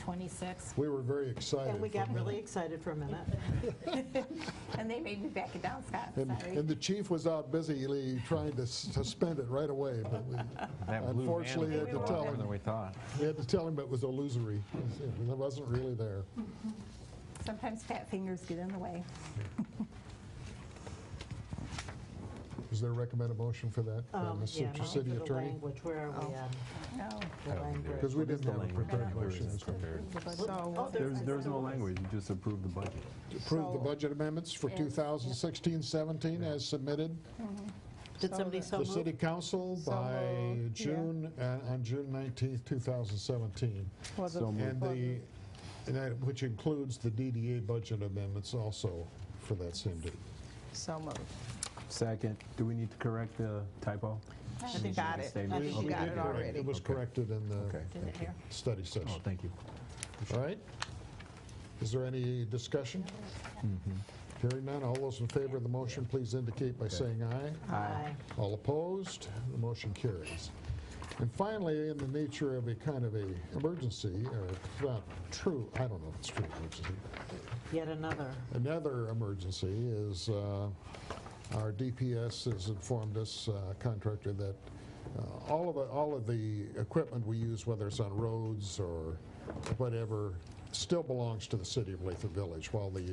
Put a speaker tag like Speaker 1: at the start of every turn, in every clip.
Speaker 1: 126.
Speaker 2: We were very excited.
Speaker 3: And we
Speaker 2: for a
Speaker 3: got really
Speaker 2: minute.
Speaker 3: excited for a minute.
Speaker 1: And they made me back it down, Scott,
Speaker 2: And, and the chief was out busily trying to suspend it right away, but we,
Speaker 4: That blue
Speaker 2: Unfortunately,
Speaker 4: man
Speaker 2: I had to
Speaker 4: was a lot
Speaker 2: tell
Speaker 4: more
Speaker 2: him.
Speaker 4: Than we thought.
Speaker 2: we had to tell him it was illusory. It wasn't really there.
Speaker 1: Sometimes fat fingers get in the way.
Speaker 2: Is there a recommended motion for that, uh,
Speaker 3: Um, yeah,
Speaker 2: Mr.
Speaker 3: now
Speaker 2: City
Speaker 3: for the
Speaker 2: Attorney?
Speaker 3: Language, where are we at?
Speaker 1: No.
Speaker 3: The language.
Speaker 2: Because we
Speaker 4: What is
Speaker 2: didn't
Speaker 4: the
Speaker 2: have a
Speaker 4: language?
Speaker 2: prepared
Speaker 4: There
Speaker 2: motion.
Speaker 4: isn't
Speaker 2: so-
Speaker 4: prepared.
Speaker 3: Oh,
Speaker 1: So,
Speaker 3: there's-
Speaker 4: There's, there's no language, you just approve the budget.
Speaker 2: To Approve the
Speaker 1: So-
Speaker 2: budget amendments for
Speaker 1: And-
Speaker 2: 2016-17 as submitted.
Speaker 3: Did somebody so
Speaker 2: The city
Speaker 3: move?
Speaker 2: council
Speaker 1: So
Speaker 2: by
Speaker 1: moved, yeah.
Speaker 2: June, uh, on June 19th, 2017.
Speaker 5: For the-
Speaker 4: So moved.
Speaker 2: And the, and that- which includes the DDA budget amendments also for that same date.
Speaker 5: So moved.
Speaker 4: Second, do we need to correct the typo?
Speaker 5: I think you got it. I
Speaker 4: Statement?
Speaker 5: think you
Speaker 2: We
Speaker 5: got
Speaker 2: did
Speaker 5: it
Speaker 2: correct- It
Speaker 5: already.
Speaker 2: was
Speaker 4: Okay.
Speaker 2: corrected in the
Speaker 4: Okay,
Speaker 1: Did it here.
Speaker 2: study
Speaker 4: oh,
Speaker 2: session.
Speaker 4: thank you.
Speaker 2: All right? Is there any discussion?
Speaker 4: Mm-hmm.
Speaker 2: Hearing none, all those in favor of the motion, please indicate by saying aye.
Speaker 3: Aye.
Speaker 2: All opposed, the motion carries. And finally, in the nature of a kind of a emergency, or it's not true, I don't know if it's true emergency,
Speaker 3: Yet another.
Speaker 2: Another emergency is uh, our DPS has informed us, uh, contractor, that uh, all of, all of the equipment we use, whether it's on roads or whatever, still belongs to the city of Lathrop Village. While the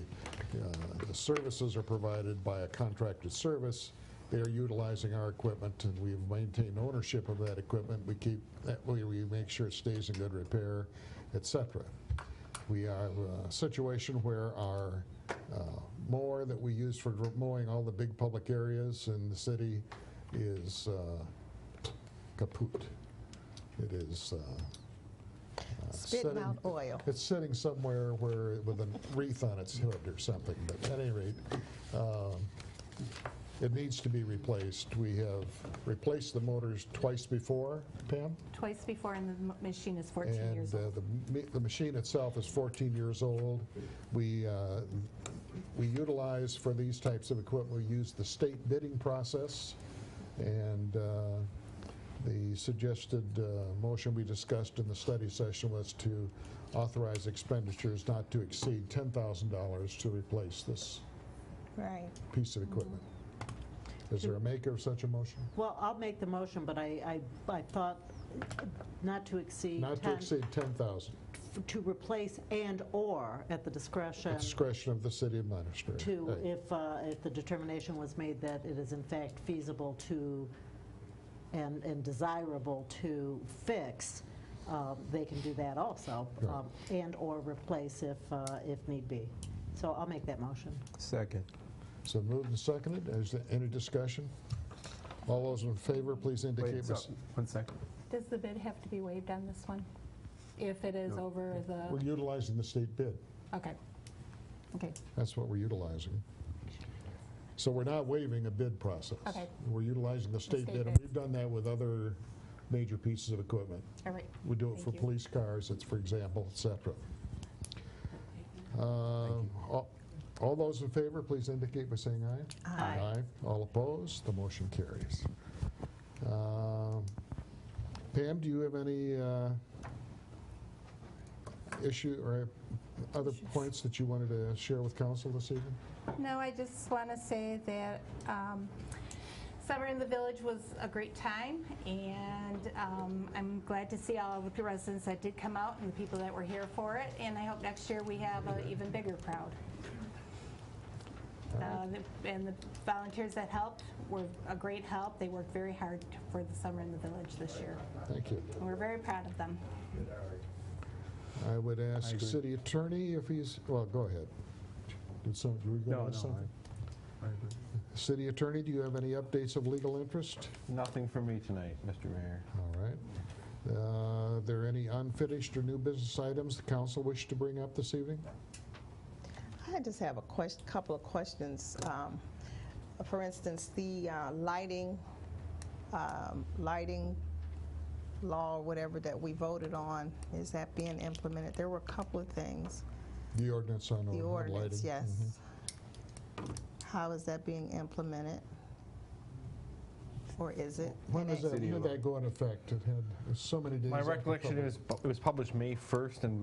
Speaker 2: uh, the services are provided by a contracted service, they are utilizing our equipment, and we've maintained ownership of that equipment. We keep, that way we make sure it stays in good repair, et cetera. We have a situation where our uh, mower that we use for mowing all the big public areas in the city is uh, kaput. It is. uh, uh,
Speaker 5: Spitting
Speaker 2: sitting-
Speaker 5: out oil.
Speaker 2: It's sitting somewhere where, with a wreath on its hood or something, but at any rate, um, it needs to be replaced. We have replaced the motors twice before, Pam?
Speaker 1: Twice before, and the m- machine is 14
Speaker 2: And
Speaker 1: years
Speaker 2: uh,
Speaker 1: old.
Speaker 2: the ma- the machine itself is 14 years old. We, uh, we utilize, for these types of equipment, we use the state bidding process, and uh, the suggested uh, motion we discussed in the study session was to authorize expenditures not to exceed $10,000 to replace this
Speaker 5: Right.
Speaker 2: piece of equipment. Is there a maker of such a motion?
Speaker 3: Well, I'll make the motion, but I, I, I thought not to exceed
Speaker 2: Not to
Speaker 3: 10
Speaker 2: exceed 10,000,
Speaker 3: f- To replace and/or at the discretion
Speaker 2: discretion of the city administrator.
Speaker 3: to,
Speaker 2: Right.
Speaker 3: if, uh, if the determination was made that it is in fact feasible to and, and desirable to fix, um, they can do that also,
Speaker 2: Right.
Speaker 3: um, and/or replace if, uh, if need be. So I'll make that motion.
Speaker 4: Second.
Speaker 2: So moved and seconded. Is there any discussion? All those in favor, please
Speaker 4: Wait,
Speaker 2: indicate. by
Speaker 4: so-
Speaker 2: s-
Speaker 4: one second.
Speaker 6: Does the bid have to be waived on this one? If it is over
Speaker 2: We're
Speaker 6: the,
Speaker 2: utilizing the state bid.
Speaker 6: okay. Okay,
Speaker 2: That's what we're utilizing. So we're not waiving a bid process.
Speaker 6: Okay.
Speaker 2: We're utilizing the state
Speaker 6: state
Speaker 2: bid, and
Speaker 6: bid.
Speaker 2: we've done that with other major pieces of equipment.
Speaker 6: all right.
Speaker 2: We do it
Speaker 6: Thank
Speaker 2: for
Speaker 6: you.
Speaker 2: police cars, it's for example, et cetera. Um, all- All those in favor, please indicate by saying aye.
Speaker 3: Aye.
Speaker 2: All opposed, the motion carries. Um, Pam, do you have any uh, issue or other points that you wanted to share with council this evening?
Speaker 6: No, I just want to say that um, summer in the village was a great time, and um, I'm glad to see all of the residents that did come out and the people that were here for it, and I hope next year we have an even bigger crowd. Uh, the- And the volunteers that helped were a great help. They worked very hard for the summer in the village this year.
Speaker 2: Thank you.
Speaker 6: And We're very proud of them.
Speaker 2: I would ask
Speaker 4: agree.
Speaker 2: city attorney if he's, well, go ahead. Did some, you were
Speaker 4: No,
Speaker 2: going to ask
Speaker 4: no,
Speaker 2: something?
Speaker 4: I- I agree.
Speaker 2: City attorney, do you have any updates of legal interest?
Speaker 4: Nothing for me tonight, Mr. Mayor.
Speaker 2: All right. Uh, Are there any unfinished or new business items the council wish to bring up this evening?
Speaker 5: I just have a question, couple of questions. Um, For instance, the uh, lighting, um, lighting law, or whatever that we voted on, is that being implemented? There were a couple of things.
Speaker 2: The ordinance on on Oh, lighting. Mm-hmm.
Speaker 5: The ordinance, yes. How is that being implemented? Or is it?
Speaker 2: When is that,
Speaker 4: City
Speaker 2: when did
Speaker 4: law.
Speaker 2: that go into effect? It had so many days.
Speaker 4: My
Speaker 2: after
Speaker 4: recollection
Speaker 2: public-
Speaker 4: is, it was published May 1st and